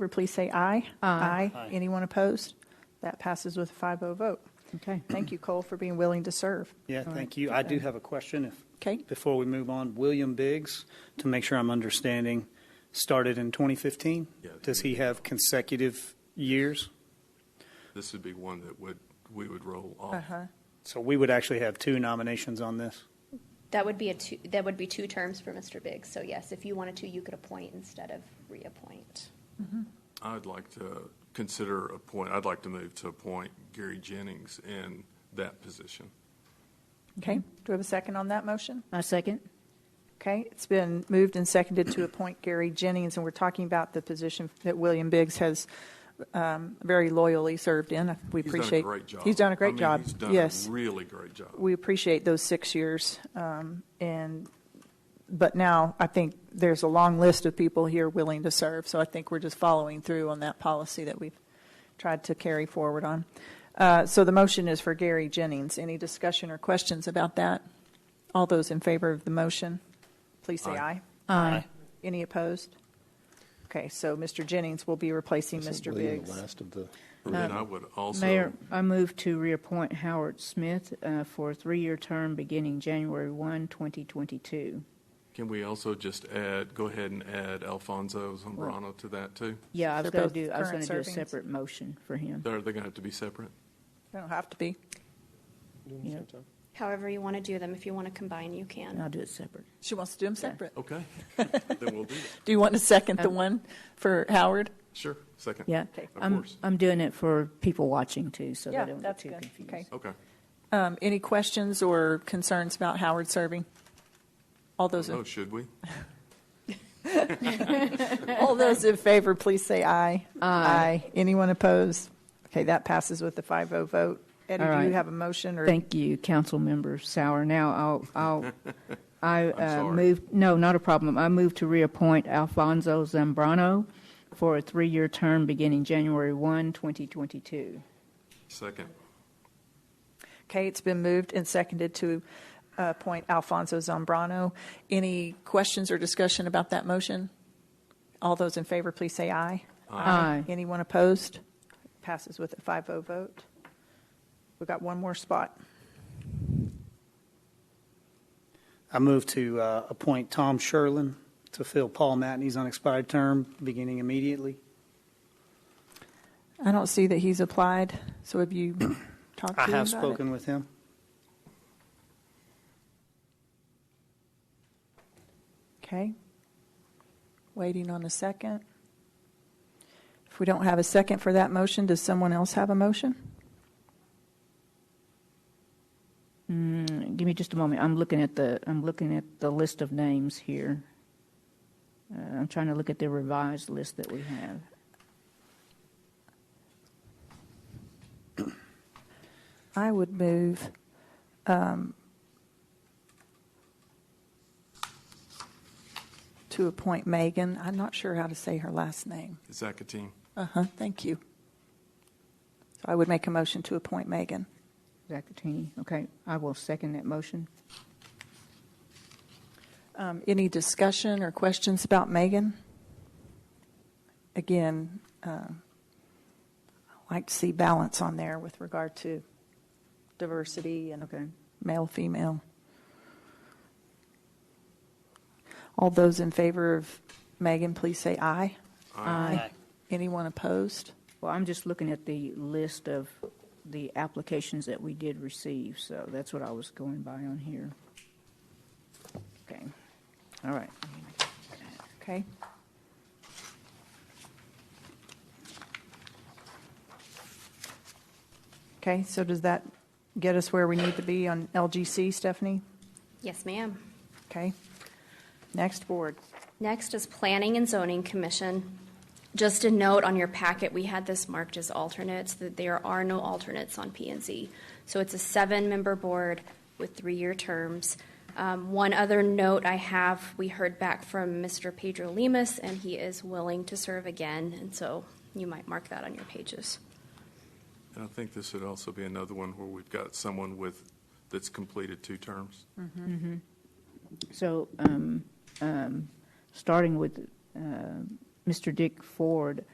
favor, please say aye. Aye. Anyone opposed? That passes with a 5-0 vote. Okay. Thank you, Cole, for being willing to serve. Yeah, thank you. I do have a question if. Okay. Before we move on, William Biggs, to make sure I'm understanding, started in 2015? Yeah. Does he have consecutive years? This would be one that would, we would roll off. Uh-huh. So we would actually have two nominations on this? That would be a two, that would be two terms for Mr. Biggs. So yes, if you wanted to, you could appoint instead of reappoint. I'd like to consider a point, I'd like to move to appoint Gary Jennings in that position. Okay, do we have a second on that motion? My second? Okay, it's been moved and seconded to appoint Gary Jennings, and we're talking about the position that William Biggs has um, very loyally served in. We He's done appreciate. a great job. He's done a I great mean, job, He's done yes. a really great job. We appreciate those six years, um, and, but now I think there's a long list of people here willing to serve, so I think we're just following through on that policy that we've tried to carry forward on. Uh, So the motion is for Gary Jennings. Any discussion or questions about that? All those in favor of the motion, please say aye. Aye. Aye. Any opposed? Okay, so Mr. Jennings will be replacing Mr. Biggs. Last of the, um, And then I would also, Mayor, I move to reappoint Howard Smith uh, for a three-year term beginning January 1, 2022. can we also just add, go ahead and add Alfonso Zambrano to that too? Yeah, I They're was going both to do, I was going current to do a servings. separate motion for him. Are they going to have to be separate? They don't have to be. Yeah, However you want to do them, if you want to combine, you and I'll can. do it separate. She wants to do them separate. Okay, then we'll do that. Do you want to second the Um, one for Howard? Sure, second. Yeah. Okay. Of I'm- course. I'm doing it for people watching too, so Yeah, they don't get that's too good. confused. Okay. Okay. Um, Any questions or concerns about Howard serving? All those, in- Oh, should we? all those in favor, please say aye. Aye. Anyone opposed? Okay, that passes with a 5-0 vote. Eddie, All do you right. have a motion or? Thank you, Councilmember Sauer. Now, I'll, I'll, I uh, sorry. move, no, not a problem. I move to reappoint Alfonso Zambrano for a three-year term beginning January 1, 2022. Second. Okay, it's been moved and seconded to uh, appoint Alfonso Zambrano. Any questions or discussion about that motion? All those in favor, please say aye. Aye. Anyone opposed? Passes with a 5-0 vote. We've got one more spot. I move to uh, appoint Tom Sherlin to fill Paul Matney's unexpired term beginning immediately. I don't see that he's applied, so have you talked to I him about have it? spoken with him. Okay. Waiting on a second. If we don't have a second for that motion, does someone else have a motion? Mm, Give me just a moment. I'm looking at the, I'm looking at the list of names here. Uh, I'm trying to look at the revised list that we have. I would move, um, to appoint Megan, I'm not sure how to say her last name. Zacatine. Uh-huh, thank you. So I would make a motion to appoint Megan. Zacatini, okay. I will second that motion. Um, Any discussion or questions about Megan? Again, um, I like to see balance on there with regard to diversity and Okay. male, female. All those in favor of Megan, please say aye. Aye. Anyone opposed? Well, I'm just looking at the list of the applications that we did receive, so that's what I was going by on here. Okay, all right. Okay. Okay, so does that get us where we need to be on LGC, Stephanie? Yes, ma'am. Okay. Next board. Next is Planning and Zoning Commission. Just a note on your packet, we had this marked as alternates, that there are no alternates on P and Z. So it's a seven-member board with three-year terms. Um, One other note I have, we heard back from Mr. Pedro Lemus, and he is willing to serve again, and so you might mark that on your pages. And I think this would also be another one where we've got someone with, that's completed two terms. So, um, um, starting with, uh, Mr. Dick Ford,